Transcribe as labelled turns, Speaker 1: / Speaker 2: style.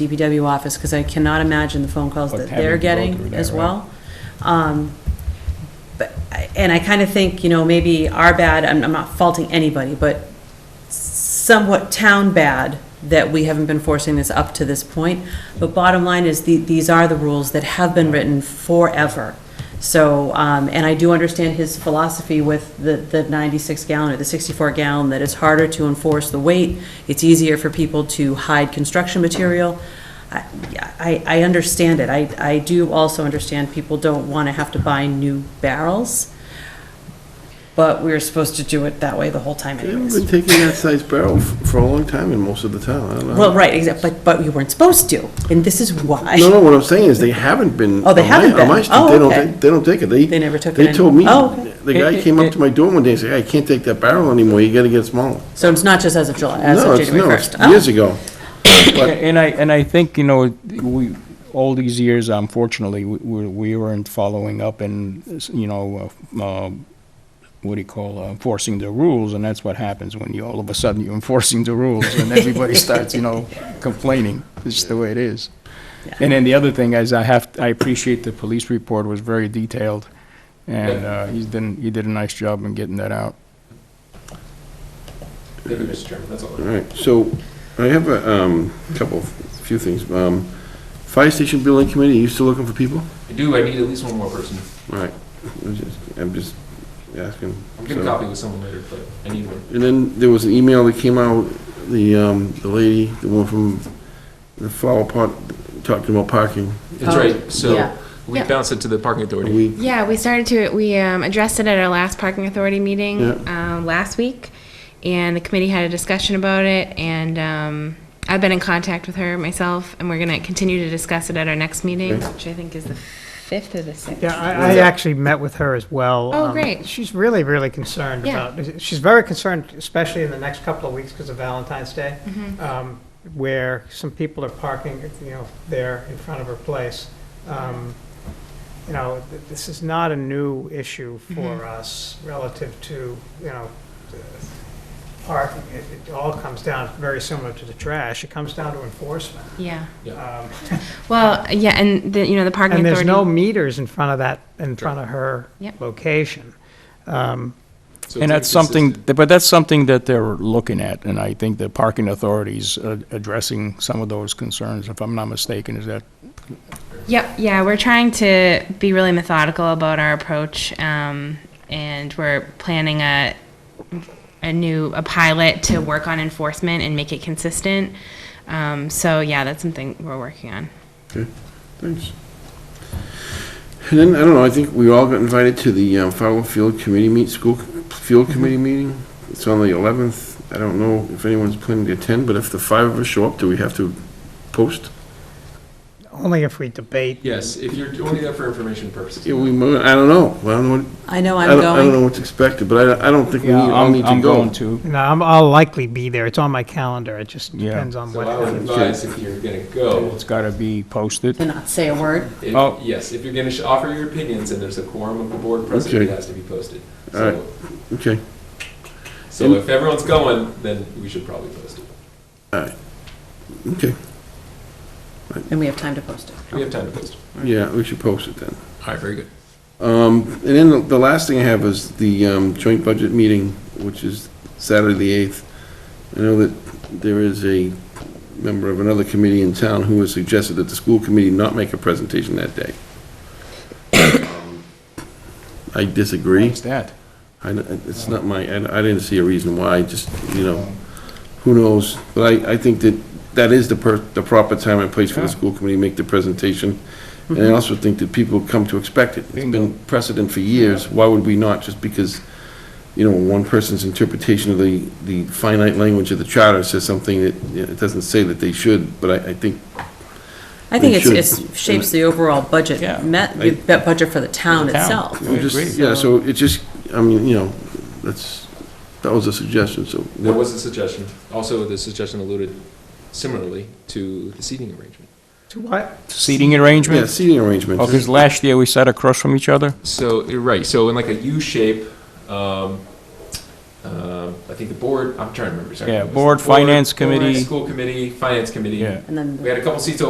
Speaker 1: DPW office, because I cannot imagine the phone calls
Speaker 2: Like
Speaker 1: that
Speaker 2: having
Speaker 1: they're
Speaker 2: to go through
Speaker 1: getting
Speaker 2: that,
Speaker 1: as
Speaker 2: right?
Speaker 1: well. Um, But, I- and I kind of think, you know, maybe our bad, I'm, I'm not faulting anybody, but somewhat town bad that we haven't been forcing this up to this point. But bottom line is, the- these are the rules that have been written forever. So, um, and I do understand his philosophy with the, the 96 gallon or the 64 gallon, that it's harder to enforce the weight, it's easier for people to hide construction material. I- I, I understand it. I, I do also understand people don't want to have to buy new barrels, but we were supposed to do it that way the whole time
Speaker 3: They've
Speaker 1: anyways.
Speaker 3: been taking that size barrel f- for a long time in most of the town, I don't know.
Speaker 1: Well, right, exact- but, but you weren't supposed to, and this is why.
Speaker 3: No, no, what I'm saying is they haven't been.
Speaker 1: Oh, they
Speaker 3: on my-
Speaker 1: haven't
Speaker 3: on my
Speaker 1: been.
Speaker 3: street,
Speaker 1: Oh,
Speaker 3: They don't,
Speaker 1: okay.
Speaker 3: take- they don't take it. They.
Speaker 1: They never took it
Speaker 3: They told me,
Speaker 1: anymore. Oh, okay.
Speaker 3: the guy came up to my door one day and said, I can't take that barrel anymore, you gotta get it smaller.
Speaker 1: So it's not just as of July, as
Speaker 3: No,
Speaker 1: of
Speaker 3: it's no,
Speaker 1: January Oh.
Speaker 3: it's
Speaker 1: 1st.
Speaker 3: Years ago. But
Speaker 2: And I, and I think, you know, we, all these years, unfortunately, we- we we weren't following up and, you know, uh, um, what do you call, uh, enforcing the rules, and that's what happens when you, all of a sudden, you're enforcing the rules, and everybody starts, you know, complaining. It's just the way it is. And then the other thing is, I have, I appreciate the police report was very detailed, and uh, he's done, he did a nice job in getting that out.
Speaker 4: Thank you, Mr. Chairman, that's all. I have.
Speaker 3: All right, so I have a um, couple, few things. Um, Fire station building committee, you still looking for people?
Speaker 4: I do, I need at least one more person.
Speaker 3: All right, I'm just- I'm just asking.
Speaker 4: I'm getting
Speaker 3: So-
Speaker 4: copy with someone later, but I need one.
Speaker 3: And then there was an email that came out, the, um, the lady, the one from the flower pot, talking about parking.
Speaker 4: That's
Speaker 1: Oh,
Speaker 4: right,
Speaker 1: yeah.
Speaker 4: so we
Speaker 5: Yeah.
Speaker 4: bounce it to the parking
Speaker 3: Are
Speaker 4: authority.
Speaker 3: we,
Speaker 5: Yeah, we started to, we um, addressed it at our last parking authority meeting um, last week, and the committee had a discussion about it, and um, I've been in contact with her myself, and we're going to continue to discuss it at our next meeting,
Speaker 3: Okay.
Speaker 5: which I think is the 5th or the 6th.
Speaker 6: Yeah, I, I actually met with her as well.
Speaker 5: Oh,
Speaker 6: Um,
Speaker 5: great.
Speaker 6: She's really, really concerned
Speaker 5: Yeah.
Speaker 6: about, she's very concerned, especially in the next couple of weeks because of Valentine's Day,
Speaker 5: Mm-hmm.
Speaker 6: um, where some people are parking, you know, there in front of her place. Um, You know, th- this is not a new issue for
Speaker 5: Mm-hmm.
Speaker 6: us relative to, you know, the parking. It it all comes down, very similar to the trash, it comes down to enforcement.
Speaker 5: Yeah,
Speaker 6: Um,
Speaker 5: well, yeah, and, the- you know, the parking
Speaker 6: and
Speaker 5: authority.
Speaker 6: there's no meters in front of that, in front of her
Speaker 5: Yep.
Speaker 6: location. Um,
Speaker 4: So
Speaker 2: And that's
Speaker 4: it's
Speaker 2: something,
Speaker 4: consistent.
Speaker 2: but that's something that they're looking at, and I think the parking authorities are addressing some of those concerns, if I'm not mistaken, is that,
Speaker 5: Yep, yeah, we're trying to be really methodical about our approach, um, and we're planning a, a new, a pilot to work on enforcement and make it consistent. Um, so yeah, that's something we're working on.
Speaker 3: thanks. And then, I don't know, I think we all got invited to the um, Fowler Field Committee meet, school c-
Speaker 2: Mm-hmm.
Speaker 3: field committee meeting. It's on the 11th. I don't know if anyone's planning to attend, but if the five of us show up, do we have to post?
Speaker 6: Only if we debate.
Speaker 4: Yes, if you're only there for information purposes.
Speaker 3: Yeah, we, mo- I don't know. I don't know, what-
Speaker 1: I know
Speaker 3: I
Speaker 1: I'm
Speaker 3: don't, I don't know
Speaker 1: going.
Speaker 3: what's expected, but I, I don't think we need- all
Speaker 2: I'm-
Speaker 3: need to
Speaker 2: I'm
Speaker 3: go.
Speaker 2: going to.
Speaker 6: No, I'm, I'll likely be there. It's on my calendar. It just
Speaker 2: Yeah.
Speaker 6: depends on
Speaker 4: So
Speaker 6: what
Speaker 4: I would
Speaker 6: happens.
Speaker 4: advise if you're gonna go,
Speaker 2: It's got to be posted.
Speaker 1: To not say a word.
Speaker 4: if-
Speaker 2: Oh.
Speaker 4: yes, if you're gonna sh- offer your opinions and there's a quorum of the board present, it
Speaker 3: Okay.
Speaker 4: has to be posted.
Speaker 3: All right.
Speaker 4: So,
Speaker 3: Okay,
Speaker 4: so if everyone's going, then we should probably post it.
Speaker 3: okay.
Speaker 1: And we have time to post it.
Speaker 4: We have time to post.
Speaker 3: Yeah, we should post it then.
Speaker 4: All right, very good.
Speaker 3: Um, And then the- the last thing I have is the um, joint budget meeting, which is Saturday, the 8th. I know that there is a member of another committee in town who has suggested that the school committee not make a presentation that day. Um, I disagree.
Speaker 2: What's that?
Speaker 3: I don't- It's not my, I I didn't see a reason why, just, you know, who knows? But I, I think that that is the per, the proper time and place for the
Speaker 2: Yeah. Mm-hmm.
Speaker 3: school committee to make the presentation. And I also think that people come to expect it. It's
Speaker 2: Bingo.
Speaker 3: been precedent for years. Why would we not? Just because, you know, one person's interpretation of the, the finite language of the charter says something that, you know, it doesn't say that they should, but I, I think,
Speaker 1: I think
Speaker 3: We
Speaker 1: it's, it's shapes the overall
Speaker 2: Yeah.
Speaker 1: budget, met,
Speaker 3: I-
Speaker 1: the budget for the town
Speaker 2: For the town.
Speaker 1: itself.
Speaker 2: I agree.
Speaker 3: just, yeah, so it just, I mean, you know, that's, that was a suggestion, so.
Speaker 4: There was a suggestion. Also, the suggestion alluded similarly to the seating arrangement.
Speaker 6: To what?
Speaker 2: Seating
Speaker 3: Yeah,
Speaker 2: arrangements?
Speaker 3: seating arrangements.
Speaker 2: Because last year, we sat across from each other.
Speaker 4: So, you're right, so in like a U shape, um, um, I think the board, I'm trying to remember. sorry.
Speaker 2: Yeah,
Speaker 4: It was
Speaker 2: board,
Speaker 4: the
Speaker 2: finance committee.
Speaker 4: School committee, finance committee.
Speaker 2: Yeah.
Speaker 1: And then. the-
Speaker 4: We had a couple seats open